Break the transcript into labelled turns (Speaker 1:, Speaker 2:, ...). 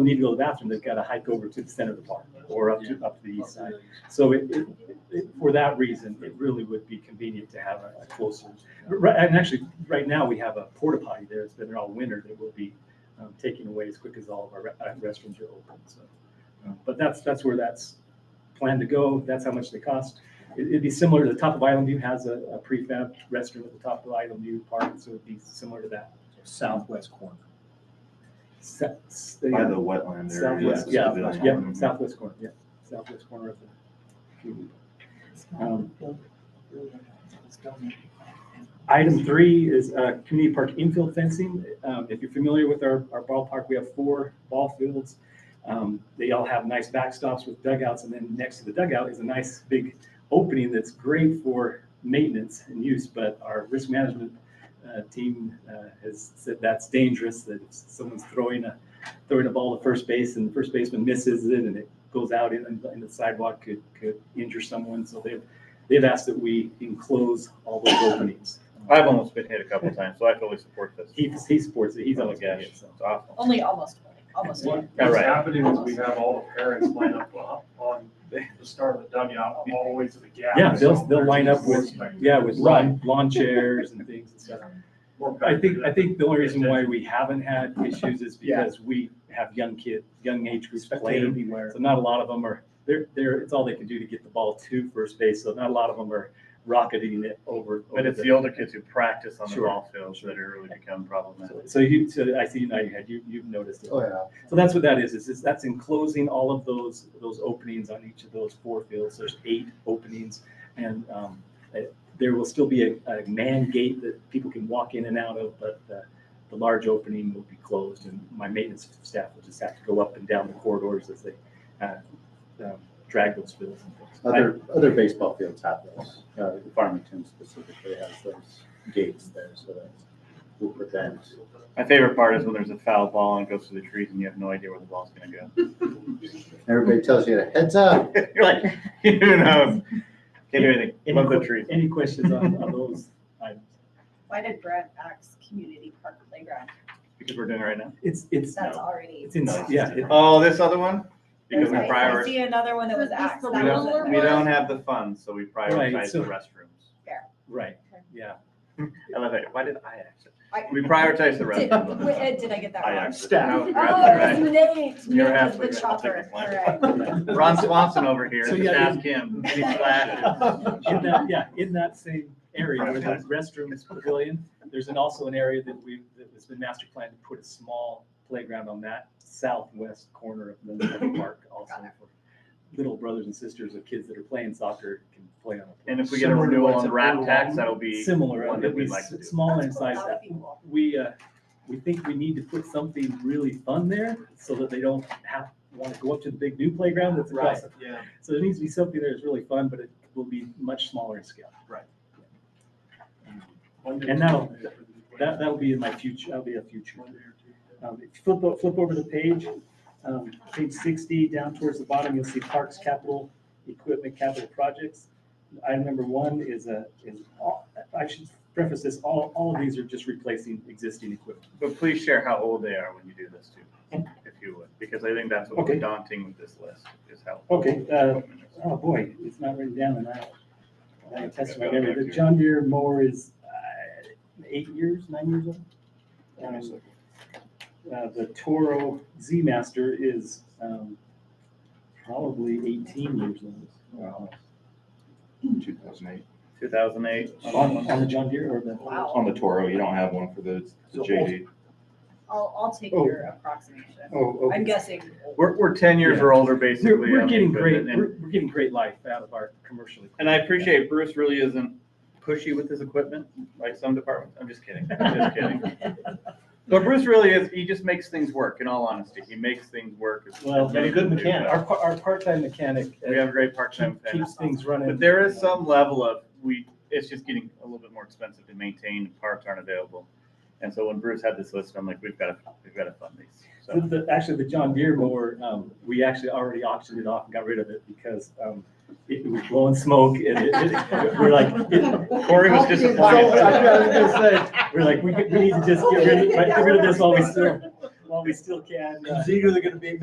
Speaker 1: don't need to go to the bathroom, they've got to hike over to the center of the park or up to, up to the east side. So it, it- it, for that reason, it really would be convenient to have a closer. Right, and actually, right now, we have a porta potty there. It's been there all winter that will be um, taken away as quick as all of our re- uh, restrooms are open, so. uh, But that's, that's where that's planned to go. That's how much they cost. It- It'd be similar to the top of Island View has a a prefab restroom at the top of Island View Park, so it'd be similar to that.
Speaker 2: Southwest corner.
Speaker 1: Se- s-
Speaker 3: By the wetland area.
Speaker 1: Southwest, yeah,
Speaker 3: civilian.
Speaker 1: yeah,
Speaker 3: Mhm.
Speaker 1: southwest corner, yeah, southwest corner of the. Um, Item three is uh, community park infield fencing. Um, If you're familiar with our, our ballpark, we have four ball fields. Um, They all have nice backstops with dugouts, and then next to the dugout is a nice big opening that's great for maintenance and use, but our risk management uh, team uh, has said that's dangerous, that if someone's throwing a, throwing a ball to first base and the first baseman misses it and it goes out in, in the sidewalk could, could injure someone. So they've, they've asked that we enclose all those openings.
Speaker 4: I've almost been hit a couple times, so I fully support this.
Speaker 1: He, he supports it. He's on the
Speaker 4: gosh,
Speaker 1: guy.
Speaker 4: It's awful.
Speaker 5: Only almost, almost.
Speaker 6: What-
Speaker 4: Yeah,
Speaker 6: What's
Speaker 4: right.
Speaker 6: happening is we have all the parents line up uh, on the start of the dugout, all the way to the gap.
Speaker 1: Yeah, they'll-
Speaker 6: So
Speaker 1: they'll
Speaker 6: we're
Speaker 1: line up
Speaker 6: just
Speaker 1: with-
Speaker 6: expecting
Speaker 1: Yeah, with lawn, lawn chairs and things and stuff.
Speaker 6: more back
Speaker 1: I think,
Speaker 6: to
Speaker 1: I
Speaker 6: the-
Speaker 1: think the only reason why we haven't had issues is
Speaker 2: Yeah.
Speaker 1: because we have young kids, young age groups
Speaker 2: Spectator
Speaker 1: playing.
Speaker 2: beware.
Speaker 1: So not a lot of them are, they're, they're, it's all they can do to get the ball to first base. So not a lot of them are rocketing it over.
Speaker 4: But
Speaker 1: over
Speaker 4: it's the older kids who practice on the
Speaker 1: Sure.
Speaker 4: ball fields that are really become problematic.
Speaker 1: So you, so I see now you had, you, you've noticed it.
Speaker 2: Oh, yeah.
Speaker 1: So that's what that is, is is that's enclosing all of those, those openings on each of those four fields. There's eight openings. And um, eh, there will still be a, a man gate that people can walk in and out of, but the, the large opening will be closed. And my maintenance staff will just have to go up and down the corridors as they uh, um, drag those fields and things.
Speaker 2: Other, other baseball fields have those. Uh, Farmington specifically has those gates there, so that will prevent.
Speaker 4: My favorite part is when there's a foul ball and it goes through the trees and you have no idea where the ball's gonna go.
Speaker 2: Everybody tells you to heads up.
Speaker 4: You're like, who knows? Can't do anything.
Speaker 1: Any
Speaker 4: Love the
Speaker 1: que-
Speaker 4: trees.
Speaker 1: Any questions on, on those items?
Speaker 5: Why did Brad axe community park playground?
Speaker 4: Because we're doing it right now.
Speaker 1: It's, it's,
Speaker 5: That's already.
Speaker 1: it's in, yeah, it-
Speaker 4: Oh, this other one? Because we
Speaker 5: I- I
Speaker 4: prioritize,
Speaker 5: see another one that was
Speaker 7: Is this
Speaker 5: axe.
Speaker 7: the
Speaker 4: we
Speaker 5: That
Speaker 7: lower
Speaker 4: don't,
Speaker 5: wasn't-
Speaker 4: we don't have the funds, so we prioritize
Speaker 1: so-
Speaker 4: the restrooms.
Speaker 1: right, yeah.
Speaker 4: I love it. Why did I ask it?
Speaker 5: I-
Speaker 4: We prioritize the
Speaker 5: Did,
Speaker 4: restrooms.
Speaker 5: wait, Ed, did I get that
Speaker 4: I
Speaker 5: wrong?
Speaker 4: asked.
Speaker 2: Staff.
Speaker 4: No,
Speaker 5: Oh,
Speaker 4: right.
Speaker 5: it's Nate.
Speaker 4: You're
Speaker 5: Nate
Speaker 4: halfway
Speaker 5: is the
Speaker 4: right. I'll take
Speaker 5: chopper.
Speaker 4: the
Speaker 5: All
Speaker 4: blame.
Speaker 5: right.
Speaker 4: Ron Swanson over here,
Speaker 1: So,
Speaker 4: just
Speaker 1: yeah,
Speaker 4: ask him. Any flashes?
Speaker 1: In that, yeah, in that same area where there's restrooms, pavilion, there's an, also an area that we, that has been master planned to put a small playground on that southwest corner of the of the park also. for Little brothers and sisters of kids that are playing soccer can play on a.
Speaker 4: And if we get a
Speaker 6: Similar to
Speaker 4: renewal
Speaker 6: what's
Speaker 4: on the rap
Speaker 6: available.
Speaker 4: tax, that'll be,
Speaker 1: Similar,
Speaker 4: one that
Speaker 1: it'd be
Speaker 4: we'd like to do.
Speaker 1: smaller in
Speaker 5: That's cool.
Speaker 1: size.
Speaker 5: That would be cool.
Speaker 1: We, uh, we think we need to put something really fun there so that they don't have, want to go up to the big new playground that's across. the-
Speaker 6: Yeah.
Speaker 1: So there needs to be something there that's really fun, but it will be much smaller in scale. And that'll- That, that'll be in my future, that'll be a future. Um, if you Flip, o- flip over the page, um, page sixty, down towards the bottom, you'll see parks, capital, equipment, capital projects. Item number one is a, is, all- I should preface this, all, all of these are just replacing existing equipment.
Speaker 4: but please share how old they are when you do this too, if you would, because I think that's what's
Speaker 1: Okay.
Speaker 4: daunting with this list, is how. old
Speaker 1: Okay,
Speaker 4: the
Speaker 1: uh,
Speaker 4: equipment is.
Speaker 1: Oh, boy, it's not written down and I, I have testimony. memory. The John Deere mower is, uh, eight years, nine years old. Um, uh, the Toro Z Master is, um, probably eighteen years old.
Speaker 3: Wow. 2008.
Speaker 4: 2008.
Speaker 1: On, on the John Deere or the?
Speaker 5: Wow.
Speaker 3: On the Toro, you don't have one for the the
Speaker 1: So
Speaker 3: JD.
Speaker 5: I'll, I'll take
Speaker 1: Oh.
Speaker 5: your approximation.
Speaker 1: Oh,
Speaker 5: I'm guessing.
Speaker 4: We're, we're 10 years
Speaker 1: Yeah.
Speaker 4: or older, basically. um,
Speaker 1: We're, we're
Speaker 4: on the
Speaker 1: getting great,
Speaker 4: equipment, and-
Speaker 1: we're, we're getting great life out of our commercial.
Speaker 4: And I appreciate Bruce really isn't pushy with his equipment, like some departments. I'm just kidding. I'm just kidding. But Bruce really is, he just makes things work, in all honesty. He makes things work. as-
Speaker 1: Well,
Speaker 4: as many
Speaker 1: a good
Speaker 4: people do,
Speaker 1: mechanic,
Speaker 4: but
Speaker 1: our, par- our part-time mechanic uh,
Speaker 4: We have a great part-time
Speaker 1: keep-
Speaker 4: fan.
Speaker 1: keeps things running.
Speaker 4: But there is some level of, we, it's just getting a little bit more expensive to maintain, parts aren't available. And so when Bruce had this list, I'm like, we've got to, we've got to fund these. So
Speaker 1: The, the- actually, the John Deere mower, um, we actually already auctioned it off and got rid of it because, um, it was blowing smoke and it, it, we're like, it-
Speaker 4: Corey was
Speaker 2: So, I was
Speaker 4: disappointed.
Speaker 2: gonna say,
Speaker 1: we're like, we could, we need to just get rid of, get rid of this while we still, uh,
Speaker 8: while we still can. uh,
Speaker 1: It's either gonna be